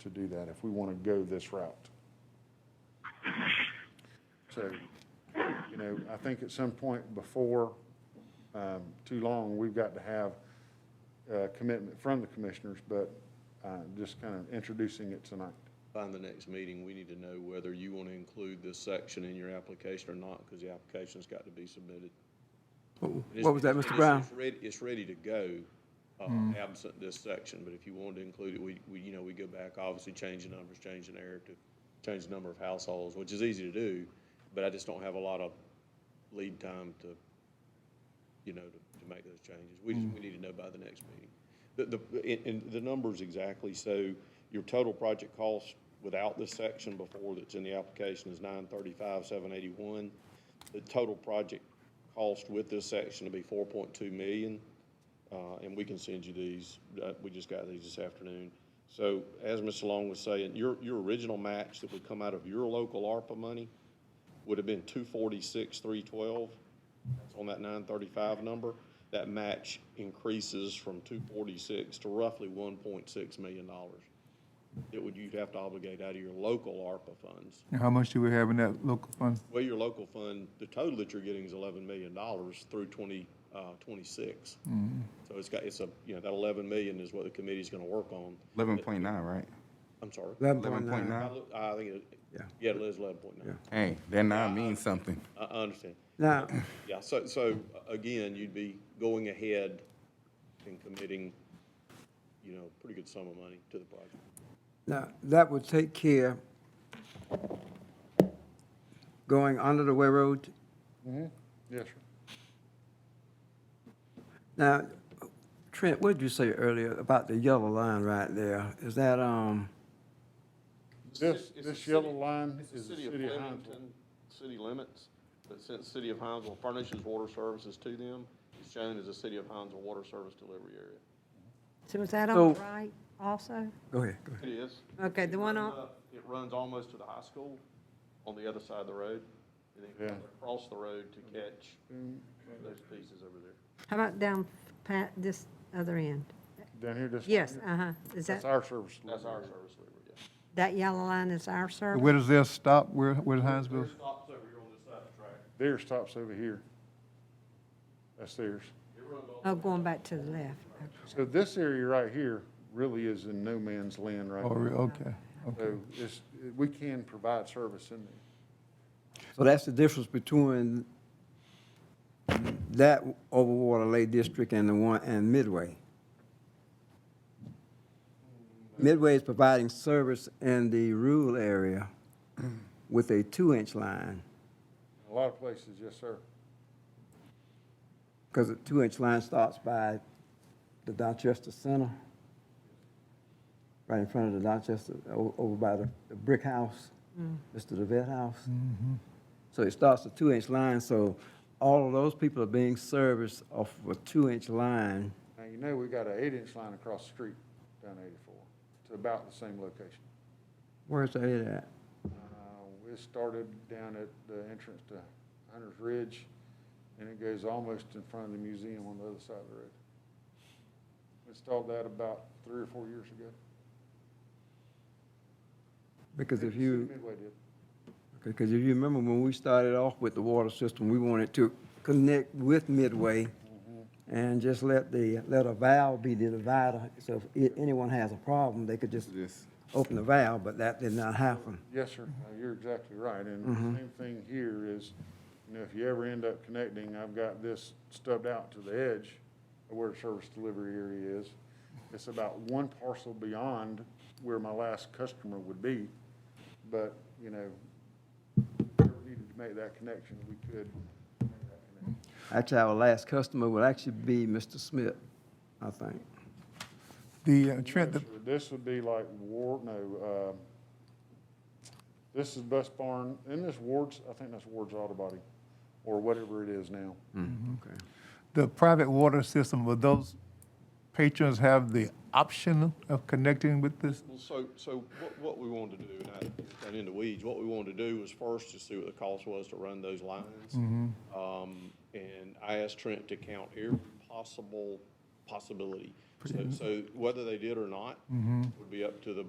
to do that if we want to go this route. So, you know, I think at some point before um, too long, we've got to have a commitment from the commissioners, but uh, just kind of introducing it tonight. By the next meeting, we need to know whether you want to include this section in your application or not, because the application's got to be submitted. It's- What was that, it's- Mr. Brown? Mm-hmm. It's ready, it's ready to go, uh, absent this section, but if you wanted to include it, we, we, you know, we go back, obviously change the numbers, change the narrative, change the number of households, which is easy to do, but I just don't have a lot of lead time to, you know, to, to make those changes. We just, we need to know by the next meeting. The, the, and, and the numbers exactly, so your total project cost without this section before that's in the application is nine thirty-five, seven eighty-one. The total project cost with this section will be four point two million, uh, and we can send you these, uh, we just got these this afternoon. So as Mr. Long was saying, your, your original match that would come out of your local ARPA money would have been two forty-six, three twelve. That's on that nine thirty-five number. That match increases from two forty-six to roughly one point six million dollars. It would, you'd have to obligate out of your local ARPA funds. And how much do we have in that local fund? Well, your local fund, the total that you're getting is eleven million dollars through twenty, uh, twenty-six. Mm-hmm. So it's got, it's a, you know, that eleven million is what the committee's gonna work on. Eleven point nine, right? I'm sorry. Eleven point I nine? look- I think it, Yeah. yeah, it is eleven point nine. Hey, that nine means something. I, I understand. Now, Yeah, so, so uh, again, you'd be going ahead and committing, you know, pretty good sum of money to the project. now, that would take care going under the railroad. Yes, sir. Now, Trent, what did you say earlier about the yellow line right there? Is that, um, This, this yellow line is the city of Hinesville. Flemington City limits, but since City of Hinesville furnishes water services to them, it's shown as a City of Hinesville Water Service Delivery Area. So is that on So- the right also? go ahead, go ahead. It is. Okay, the one on, It runs almost to the high school on the other side of the road, and then Yeah. Mm-hmm. across the road to catch those pieces over there. how about down pa this other end? Down here, this. Yes, uh-huh. Is That's that, our service. That's our service delivery, yeah. that yellow line is our service? Where does this stop? Where, where's Hinesville? There's stops over here on this side of the track. Theirs stops over here. That's theirs. Oh, going back to the left. So this area right here really is in no man's land right Oh, now. re- okay, okay. So it's, we can provide service in there. So that's the difference between that Overwater Lake District and the one, and Midway. Midway is providing service in the rural area with a two-inch line, A lot of places, yes, sir. because the two-inch line starts by the Dorchester Center, right in front of the Dorchester, o- over by the the brick house, Mr. the vet house. So it starts a two-inch line, so all of those people are being serviced off of a two-inch line. Now, you know, we got an eight-inch line across the street down eighty-four to about the same location. Where's that at? Uh, It started down at the entrance to Hunter's Ridge, and it goes almost in front of the museum on the other side of the road. Installed that about three or four years ago. Because if City you, Midway did. because if you remember when we started off with the water system, we wanted to connect with Midway and just let the, let a valve be the divider, so if i- anyone has a problem, they could just Yes. open the valve, but that did not happen. Yes, sir, No, you're exactly right, and the same thing here is, you know, if you ever end up connecting, I've got this stubbed out to the edge of where service delivery area is. It's about one parcel beyond where my last customer would be, but, you know, if we ever needed to make that connection, we could. make that connection. Actually, our last customer would actually be Mr. Smith, I think. The, uh, Trent, the- So This would be like Ward, no, um, this is Bus Barn, and this Ward's, I think that's Ward's Auto Body, or whatever it is now. Okay. the private water system, will those patrons have the option of connecting with this? Well, so, so what, what we wanted to do, and I got into weeds, what we wanted to do was first to see what the cost was to run those lines. Um, and I asked Trent to count every possible possibility. So, so whether they did or not would be up to the